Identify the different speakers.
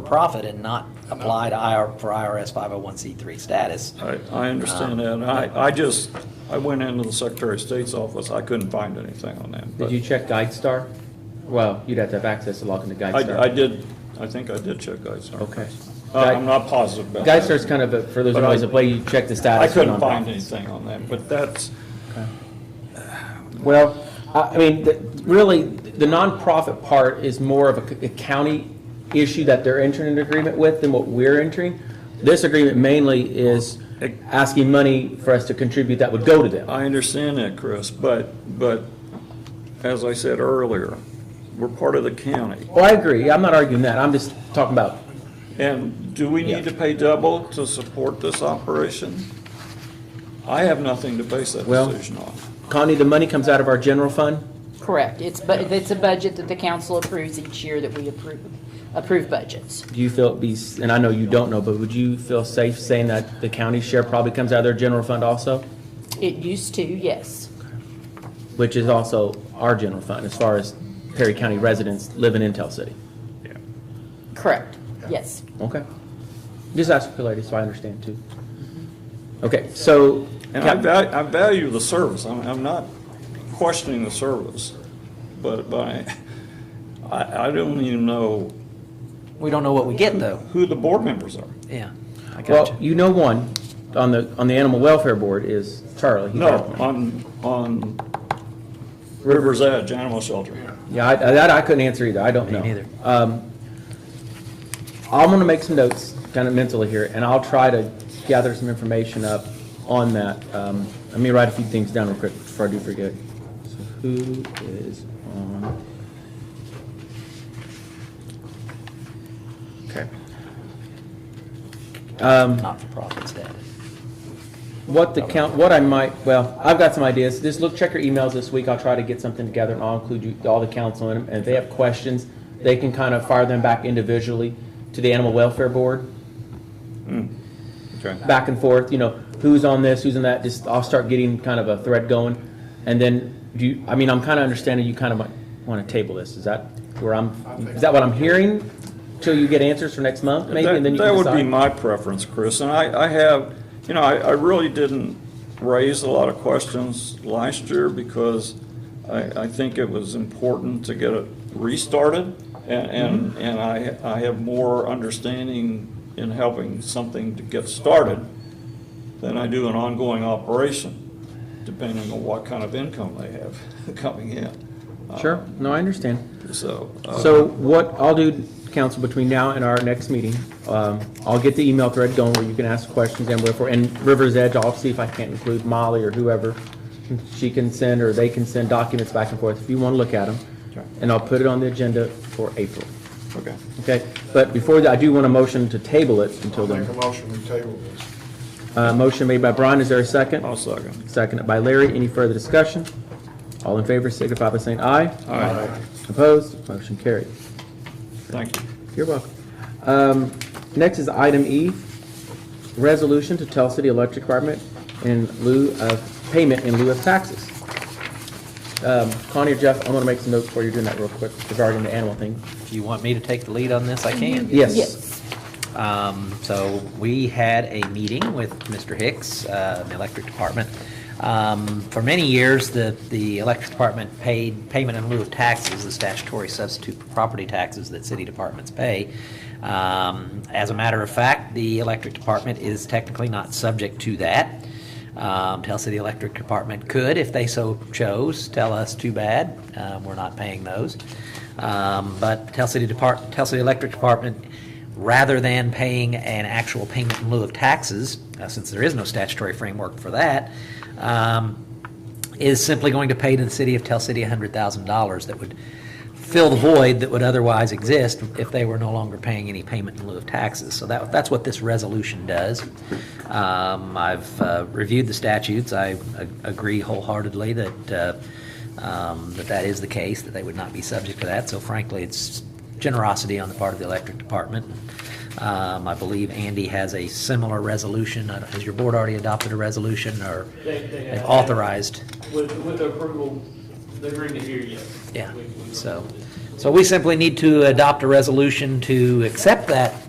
Speaker 1: for profit and not apply to IR, for IRS 501c3 status.
Speaker 2: I, I understand
Speaker 3: Uh,
Speaker 2: that. I, I just, I went into the Secretary of State's office. I couldn't find anything on that. but
Speaker 3: Did you check GuideStar? Well, you'd have to have access to log into GuideStar.
Speaker 2: I, I did, I think I did check GuideStar.
Speaker 3: Okay.
Speaker 2: Uh, I'm not positive about that.
Speaker 3: GuideStar's kind of, a- for those who
Speaker 2: But
Speaker 3: don't
Speaker 2: I-
Speaker 3: know, is a way you check the
Speaker 2: I
Speaker 3: status. of
Speaker 2: couldn't find
Speaker 3: nonprofits.
Speaker 2: anything on that, but that's,
Speaker 3: Well, I I mean, the- really, the nonprofit part is more of a c- a county issue that they're entering an agreement with than what we're entering. This agreement mainly is asking money for us to contribute that would go to them.
Speaker 2: I understand that, Chris, but, but as I said earlier, we're part of the county.
Speaker 3: Well, Oh, I agree, I'm not arguing that, I'm just talking about,
Speaker 2: And do we
Speaker 3: Yeah.
Speaker 2: need to pay double to support this operation? I have nothing to base that
Speaker 3: Well-
Speaker 2: decision on.
Speaker 3: Connie, the money comes out of our general fund?
Speaker 4: Correct. It's, but it's a budget that the council approves each year that we approve, approve budgets.
Speaker 3: Do you feel it'd be, and I know you don't know, but would you feel safe saying that the county share probably comes out of their general fund also?
Speaker 4: It used to, yes.
Speaker 3: Which is also our general fund, as far as Perry County residents living in Tell City.
Speaker 4: Correct. Yes.
Speaker 3: Okay. Just ask the lady, so I understand too. Okay, so,
Speaker 2: And I
Speaker 3: Cap-
Speaker 2: value, I value the service, I'm, I'm not questioning the service, but, but I- I, I don't even know
Speaker 1: We don't know what we get, though.
Speaker 2: who the board members are.
Speaker 1: Yeah, I got
Speaker 3: well,
Speaker 1: you.
Speaker 3: you know one, on the, on the Animal Welfare Board is Charlie. He's
Speaker 2: No,
Speaker 3: our-
Speaker 2: on, on River's Edge Animal Shelter.
Speaker 3: Yeah, I, I- that I couldn't answer either, I don't know.
Speaker 1: neither.
Speaker 3: Um, I'm gonna make some notes, kind of mentally here, and I'll try to gather some information up on that. Um, Let me write a few things down real quick before I do forget. So who is on? Okay. Um,
Speaker 1: Not-for-profit status.
Speaker 3: what the count, what I might, well, I've got some ideas. Just look, check your emails this week. I'll try to get something together and I'll include you, all the council in them. And if they have questions, they can kind of fire them back individually to the Animal Welfare Board,
Speaker 2: Okay.
Speaker 3: back and forth, you know, who's on this, who's on that, just, I'll start getting kind of a thread going. And then, do you, I mean, I'm kind of understanding you kind of might want to table this. Is that where I'm, is that what I'm hearing? Till you get answers for next month, maybe, and then you
Speaker 2: That
Speaker 3: can
Speaker 2: that would be
Speaker 3: decide?
Speaker 2: my preference, Chris, and I, I have, you know, I, I really didn't raise a lot of questions last year because I, I think it was important to get it restarted, and, and,
Speaker 3: Mm-hmm.
Speaker 2: and I, I have more understanding in helping something to get started than I do an ongoing operation, depending on what kind of income they have coming in.
Speaker 3: Sure, no, I understand.
Speaker 2: So. uh,
Speaker 3: So what I'll do, council, between now and our next meeting, um, I'll get the email thread going where you can ask questions and wherefore, and River's Edge, I'll see if I can't include Molly or whoever. She can send, or they can send documents back and forth if you want to look at them.
Speaker 2: Sure.
Speaker 3: And I'll put it on the agenda for April,
Speaker 2: Okay.
Speaker 3: okay? But before that, I do want a motion to table it until
Speaker 5: I'll make
Speaker 3: then.
Speaker 5: a motion to table this.
Speaker 3: Uh, Motion made by Brian, is there a second?
Speaker 2: I'll second.
Speaker 3: Seconded by Larry, any further discussion? All in favor signify by saying aye.
Speaker 2: All right,
Speaker 3: Opposed, motion carried.
Speaker 2: thank you.
Speaker 3: You're welcome. Um, Next is item E, resolution to Tell City Electric Department in lieu of, payment in lieu of taxes. Um, Connie or Jeff, I'm going to make some notes for you doing that real quick regarding the animal thing.
Speaker 1: If you want me to take the lead on this, I can.
Speaker 3: Yes.
Speaker 4: Yes.
Speaker 1: Um, So we had a meeting with Mr. Hicks, uh, in the electric department. Um, For many years, the, the electric department paid payment in lieu of taxes, the statutory substitute for property taxes that city departments pay. Um, As a matter of fact, the electric department is technically not subject to that. Um, Tell City Electric Department could, if they so chose, tell us, too bad, uh, we're not paying those. Um, But Tell City Depart, Tell City Electric Department, rather than paying an actual payment in lieu of taxes, uh, since there is no statutory framework for that, um, is simply going to pay to the city of Tell City $100,000 that would fill the void that would otherwise exist if they were no longer paying any payment in lieu of taxes. So that, that's what this resolution does. Um, I've uh, reviewed the statutes. I a- agree wholeheartedly that, uh, um, that that is the case, that they would not be subject to that. So frankly, it's generosity on the part of the electric department. Um, I believe Andy has a similar resolution. I don't- Has your board already adopted a resolution or
Speaker 6: They- they
Speaker 1: they've
Speaker 6: have.
Speaker 1: authorized?
Speaker 6: With, with the approval, the agreement here, yes.
Speaker 1: Yeah,
Speaker 6: We- we-
Speaker 1: so So we simply need to adopt a resolution to accept that